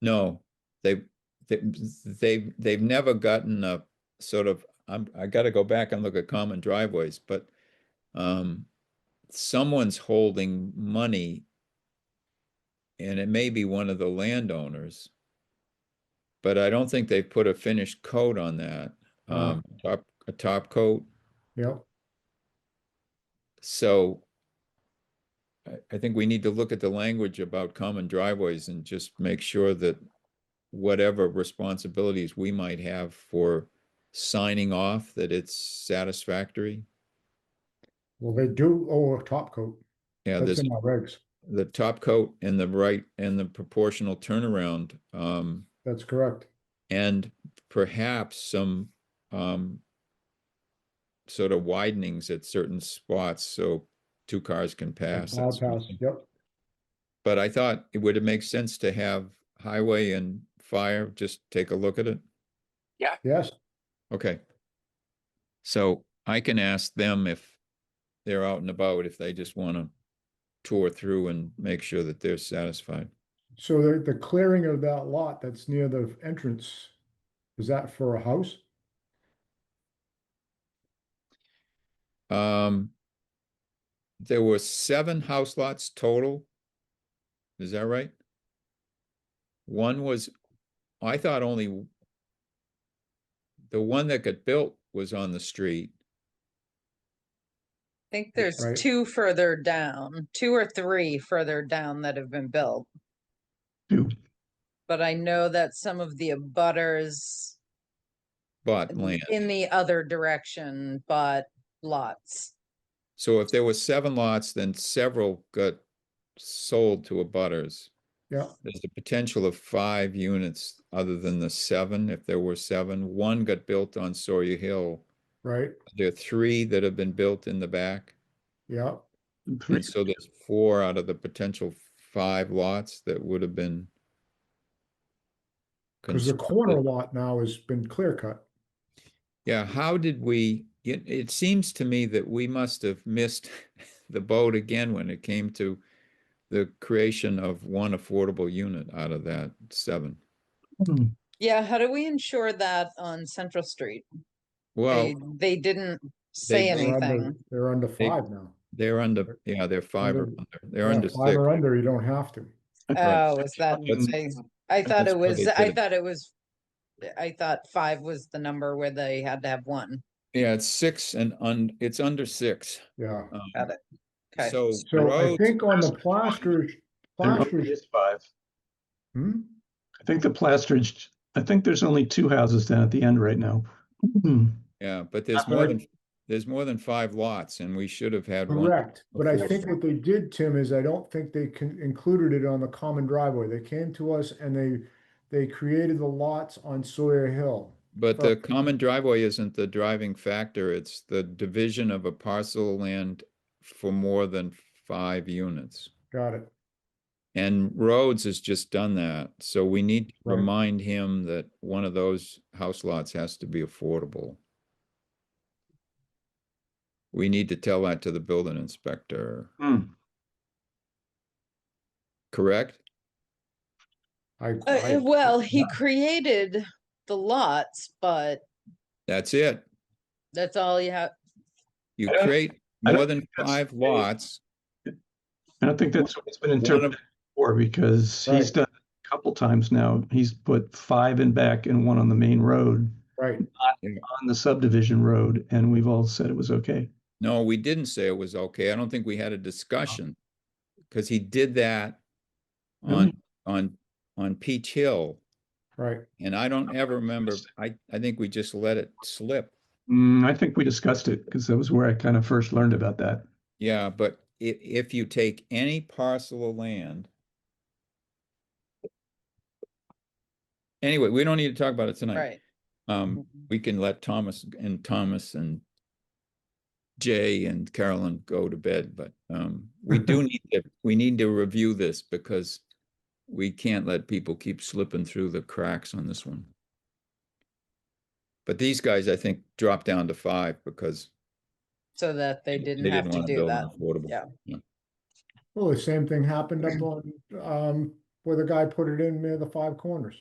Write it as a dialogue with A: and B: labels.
A: No, they, they, they, they've never gotten a sort of, I'm, I gotta go back and look at common driveways, but um, someone's holding money and it may be one of the landowners. But I don't think they've put a finished coat on that,
B: Ah.
A: um, top, a top coat,
B: Yep.
A: so I, I think we need to look at the language about common driveways and just make sure that whatever responsibilities we might have for signing off, that it's satisfactory.
B: Well, they do owe a top coat.
A: Yeah,
B: That's
A: there's
B: in our regs.
A: the top coat and the right and the proportional turnaround, um,
B: That's correct.
A: and perhaps some, um, sort of widenings at certain spots, so two cars can pass. that
B: Wild
A: sort of
B: pass,
A: thing.
B: Yep.
A: But I thought it would make sense to have highway and fire, just take a look at it.
B: Yes.
A: Okay. So I can ask them if they're out and about, if they just want to tour through and make sure that they're satisfied.
B: So the, the clearing of that lot that's near the entrance, is that for a house?
A: Um, there were seven house lots total. Is that right? One was, I thought only w- the one that got built was on the street.
C: think
B: Yeah,
C: there's
B: right.
C: two further down, two or three further down that have been built.
D: Two.
C: But I know that some of the abutters
A: bought land.
C: in the other direction bought lots.
A: So if there were seven lots, then several got sold to abutters.
B: Yeah,
A: There's the potential of five units other than the seven, if there were seven. One got built on Sawyer Hill.
B: right.
A: There are three that have been built in the back.
B: Yeah.
A: And
B: Hmm.
A: so there's four out of the potential five lots that would have been.
B: Because the corner lot now has been clear cut.
A: Yeah, how did we, it, it seems to me that we must have missed the boat again when it came to the creation of one affordable unit out of that seven.
D: Hmm.
C: Yeah, how do we ensure that on Central Street?
A: Well,
C: They, they didn't say
B: They're under-
C: anything.
B: They're under
A: They-
B: five now.
A: they're under, yeah, they're five or
B: Under-
A: under, they're
B: Yeah,
A: under
B: Five
A: six.
B: or under, you don't have to.
C: Oh, is that,
A: That's-
C: I, I thought
A: that's
C: it
A: why
C: was,
A: they
C: I
A: did it.
C: thought it was, I thought five was the number where they had to have one.
A: Yeah, it's six and un, it's under six.
B: Yeah.
A: Um,
C: Got it. Uh, Okay.
A: So
B: So I
A: roads,
B: think on the plasters,
D: There only
B: plasters,
D: is five.
B: hmm?
D: I think the plasterage, I think there's only two houses down at the end right now. Hmm.
A: yeah, but there's
D: I've
A: more
D: heard-
A: than, there's more than five lots and we should have had one.
B: Correct, but I
A: before.
B: think what they did, Tim, is I don't think they con- included it on the common driveway. They came to us and they, they created the lots on Sawyer Hill.
A: But the
B: Okay.
A: common driveway isn't the driving factor, it's the division of a parcel of land for more than five units.
B: Got it.
A: And Rhodes has just done that, so we need to
B: Right.
A: remind him that one of those house lots has to be affordable. We need to tell that to the building inspector,
D: Hmm.
A: correct?
B: I.
C: Uh,
B: I-
C: well, he created the lots, but
A: That's it.
C: that's all you have.
A: You
D: I don't-
A: create
D: I don't
A: more than
D: think that's
A: five
D: a-
A: lots.
D: I don't think that's what it's been
A: of-
D: interpreted for because he's done it a couple times now. He's put five in back and one on the main road,
B: Right,
D: on the subdivision road, and we've all said it was okay.
A: No, we didn't say it was okay. I don't think we had a discussion. Cause he did that on, on, on Peach Hill.
B: right.
A: And I don't ever remember,
D: Interesting.
A: I, I think we just let it slip.
D: Hmm, I think we discussed it because that was where I kind of first learned about that.
A: Yeah, but i- if you take any parcel of land. Anyway, we don't need to talk about it tonight.
C: Right. Mm-hmm.
A: Um, we can let Thomas and Thomas and Jay and Carolyn go to bed, but um, we do need to, we need to review this because we can't let people keep slipping through the cracks on this one. But these guys, I think, dropped down to five because
C: So that they didn't
A: they
C: have
A: didn't
C: to
A: want to
C: do
A: build
C: that.
A: an affordable.
C: Yeah.
B: Well, the same thing happened up on, um, where the guy put it in near the five corners.